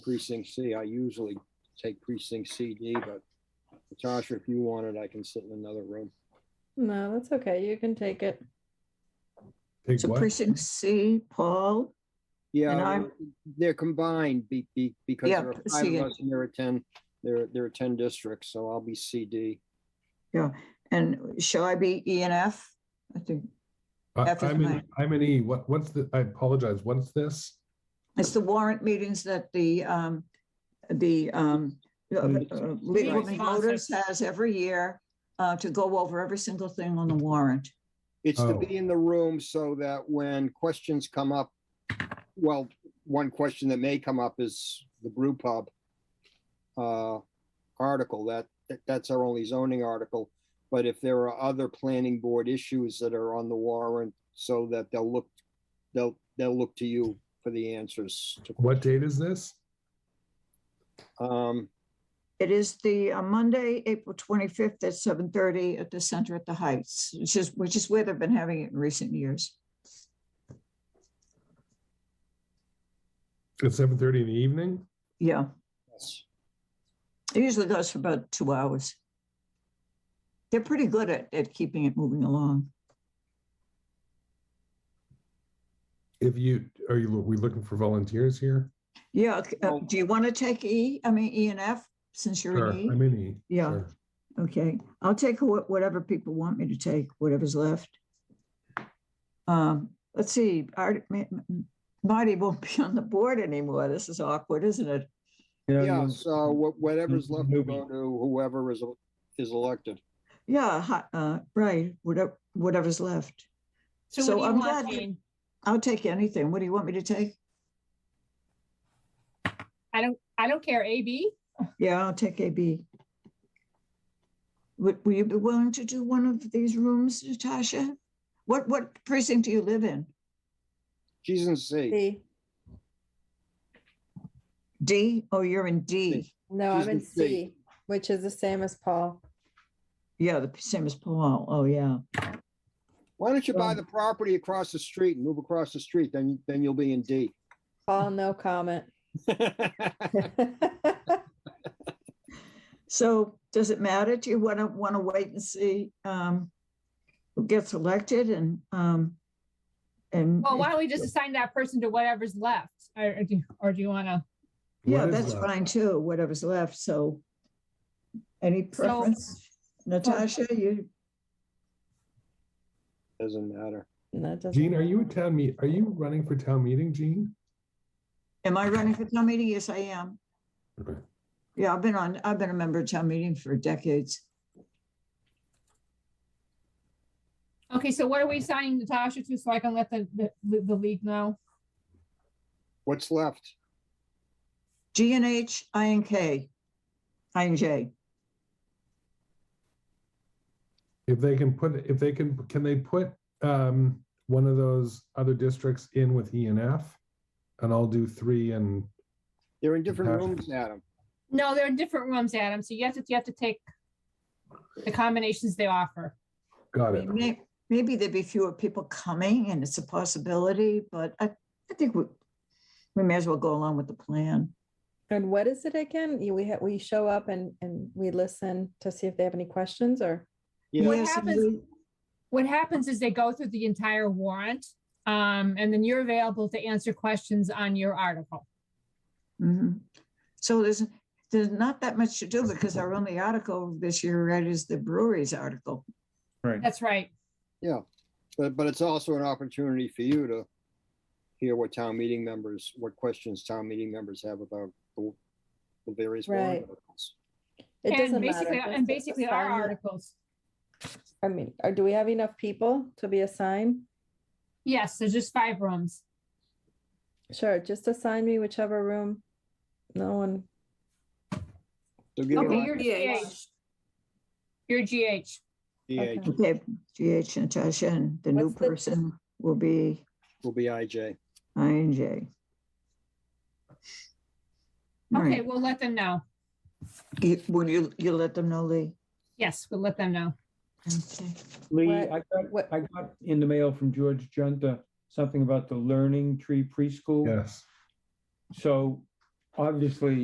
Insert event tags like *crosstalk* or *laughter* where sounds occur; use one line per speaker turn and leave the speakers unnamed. precinct C. I usually take precinct CD, but Natasha, if you want it, I can sit in another room.
No, that's okay. You can take it.
Take
So
what?
precinct C, Paul, And
Yeah,
I'm-
they're combined be, be, because
Yeah,
there are five
CD.
of us and there are ten, there, there are ten districts, so I'll be CD.
and shall I be E and F? I think
I-
F is
I'm in,
mine.
I'm in E. What, what's the, I apologize, what's this?
it's the warrant meetings that the, um, the, um, uh, uh, League of
Legal
Voters
process.
has every year, uh, to go over every single thing on the warrant.
It's to
Oh.
be in the room so that when questions come up, well, one question that may come up is the brew pub uh, article, that, that- that's our only zoning article. But if there are other planning board issues that are on the warrant, so that they'll look, they'll, they'll look to you for the answers.
What date is this?
to Um,
It is the uh, Monday, April 25th at 7:30 at the Center at the Heights, which is, which is where they've been having it in recent years.
At seven thirty in the evening?
Yeah,
yes.
it usually goes for about two hours. They're pretty good at, at keeping it moving along.
If you, are you, are we looking for volunteers here?
Yeah, c- uh,
Well-
do you want to take E, I mean, E and F, since you're
Sure,
in E?
I'm in E.
Yeah.
Sure.
Okay, I'll take wha- whatever people want me to take, whatever's left. Um, let's see, Art- Ma- Ma- Marty won't *laughs* be on the board anymore. This is awkward, isn't it?
Yeah, so wha- whatever's left will go
Movie.
to whoever is, is elected.
Yeah, hi- uh, right, whatever, whatever's left.
So
So
what do
I'm
you want,
glad you-
Jane?
I'll take anything. What do you want me to take?
I don't, I don't care, AB?
Yeah, I'll take AB. Would, will you be willing to do one of these rooms, Natasha? What, what precinct do you live in?
She's in C.
B.
D? Oh, you're in D.
No, I'm
She's in
in
C.
C, which is the same as Paul.
Yeah, the same as Paul. Oh, yeah.
Why don't you buy
Um,
the property across the street and move across the street? Then, then you'll be in D.
Paul, no comment. *laughs*
So does it matter? Do you want to, want to wait and see um, who gets elected and, um, and?
Well, why don't we just assign that person to whatever's left? Or or do, or do you wanna?
Yeah,
What is
that's
that?
fine too, whatever's left, so. Any
So-
preference? Natasha, you,
Doesn't matter.
No, it doesn't
Gene, are
matter.
you a town meet, are you running for town meeting, Gene?
am I running for town meeting? Yes, I am.
Okay.
Yeah, I've been on, I've been a member of town meeting for decades.
Okay, so what are we assigning Natasha to so I can let the, the, the league know?
What's left?
G and H, I and K, I and J.
If they can put, if they can, can they put um one of those other districts in with E and F? And I'll do three and,
They're in different
Okay.
rooms, Adam.
No, they're in different rooms, Adam, so you have to, you have to take the combinations they offer.
got
I
it.
mean, may- Maybe there'd be fewer people coming and it's a possibility, but I, I think we, we may as well go along with the plan.
And what is it again? You- We, ha- we show up and, and we listen to see if they have any questions or?
Yeah.
What
Yes,
happens-
you-
What happens is they go through the entire warrant, um, and then you're available to answer questions on your article.
Mhm. So there's, there's not that much to do because our only article this year, right, is the breweries article.
That's right.
But, but it's also an opportunity for you to hear what town meeting members, what questions town meeting members have about the the various warrant
Right.
articles.
it
And
doesn't matter,
basically,
just
and basically our
assign it.
articles.
I mean, or do we have enough people to be assigned?
Yes, there's just five rooms.
Sure, just assign me whichever room. No one,
So give
Okay,
it
you're GH. You're GH.
IGA,
okay.
Okay, GH Natasha and the new
What's the-
person will be
will be IJ.
INJ. All
Okay,
right,
we'll let them know.
You- will you, you let them know, Lee?
Yes, we'll let them know.
Okay.
Lee,
What-
I got,
what-
I got in the mail from George Junta, something about the Learning Tree Preschool.
Yes.
So obviously